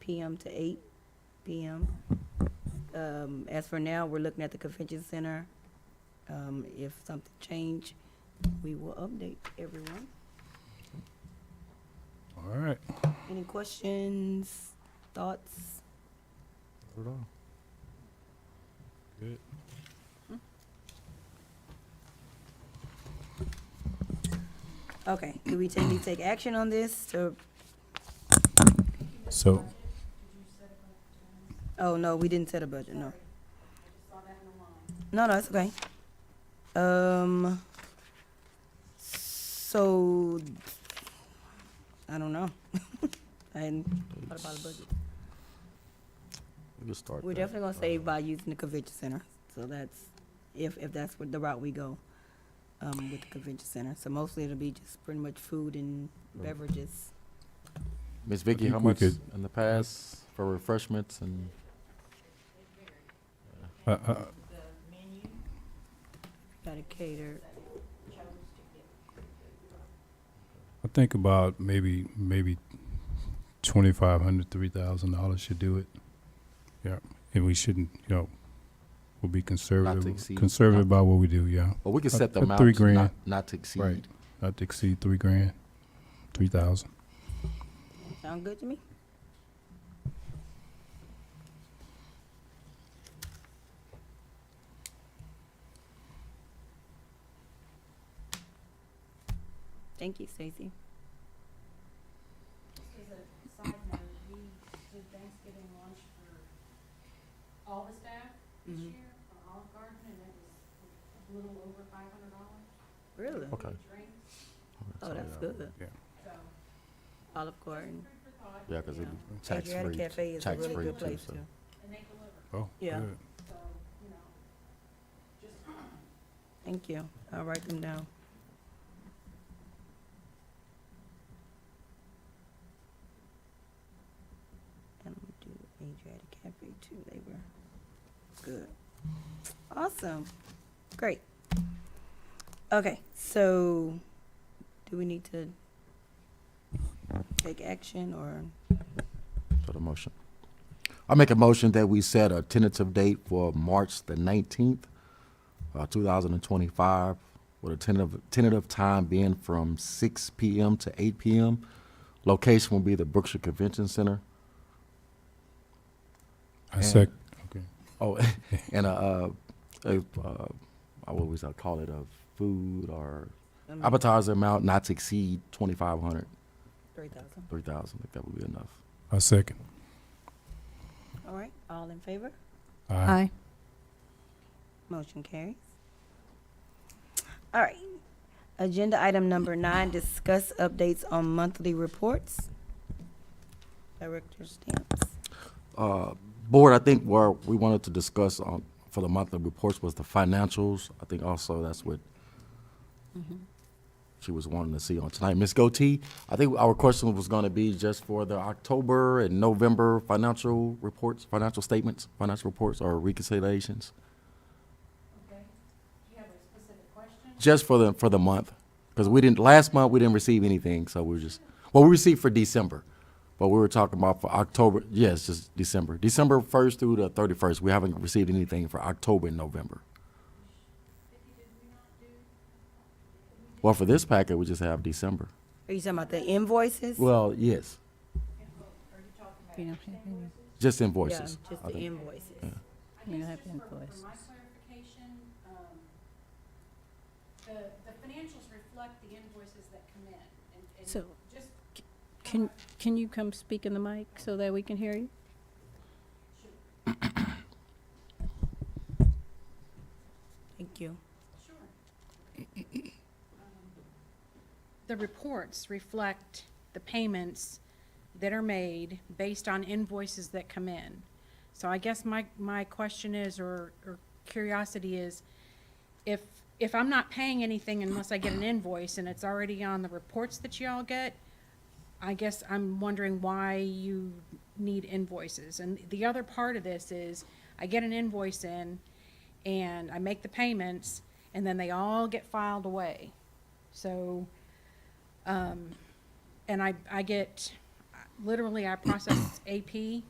PM to eight PM. Um, as for now, we're looking at the convention center. Um, if something change, we will update everyone. All right. Any questions, thoughts? Hold on. Good. Okay, do we take, we take action on this to So, Oh, no, we didn't set a budget, no. No, no, it's okay. Um, so, I don't know. And what about a budget? We could start. We're that. definitely gonna save by using the convention center, so that's, if, if that's what the route we go, um, with the convention center. So mostly it'll be just pretty much food and beverages. Miss Vicky, think how we much could- in the past for refreshments and? uh, uh, Gotta cater, I think about maybe maybe twenty five hundred, three thousand dollars should do it. Yeah, and we shouldn't, you know, we'll be conservative, exceed- conservative not- about what we do. Yeah, Well, we could Uh, set the uh, amount. three grand. Not, not to exceed. Right. not to exceed three grand, three thousand. sound good to me? Thank you, Stacy. Just as a side note, we did Thanksgiving lunch for all the staff this Mm-hmm. Mhm. year for Olive Garden, and it was a little over five hundred dollars. Really? Okay. Drinks, Oh, that's good. so Olive Garden. food for thought, Yeah, because Yeah. it's tax free. Cafe is a tax really free good too, place so. too. and they deliver, Oh, Yeah. good. so, you know, just Thank you. I'll write them down. And we do Adriatic Cafe too. They were good. Awesome. Great. Okay, so do we need to take action or? For the motion. I make a motion that we set a tentative date for March the nineteenth, uh, two thousand and twenty-five, with a tentative, tentative time being from six PM to eight PM. Location will be the Brookshire Convention Center. I And- sec. Oh, and a, uh, a, uh, I always I call it a food or um, appetizer amount not to exceed twenty-five hundred, 3,000? three thousand, if that would be enough. I second. All right, all in favor? Aye. Motion carries. All right. Agenda item number nine, discuss updates on monthly reports. Director Stamps. uh, board, I think where we wanted to discuss on, for the monthly reports was the financials. I think also that's what she was wanting to see on tonight. Ms. Goatee, I think our question was gonna be just for the October and November financial reports, financial statements, financial reports or reconciliations, Okay. Do you have a specific question? just for the, for the month. Because we didn't, last month, we didn't receive anything, so we were just, well, we received for December. But we were talking about for October, yes, just December. December first through the thirty-first, we haven't received anything for October and November. Well, for this packet, we just have December. Are you talking about the invoices? Well, yes, We don't have any, just Yeah, invoices. just I the think. invoices. I we don't guess have just for, for invoices. my clarification, um, the, the financials reflect the invoices that come in, and, and So, just Can, can you come speak in the mic so that we can hear you? Thank you. Sure. The reports reflect the payments that are made based on invoices that come in. So I guess my, my question is, or, or curiosity is, if, if I'm not paying anything unless I get an invoice and it's already on the reports that y'all get, I guess I'm wondering why you need invoices. And the other part of this is, I get an invoice in, and I make the payments, and then they all get filed away. So, um, and I, I get, literally I process AP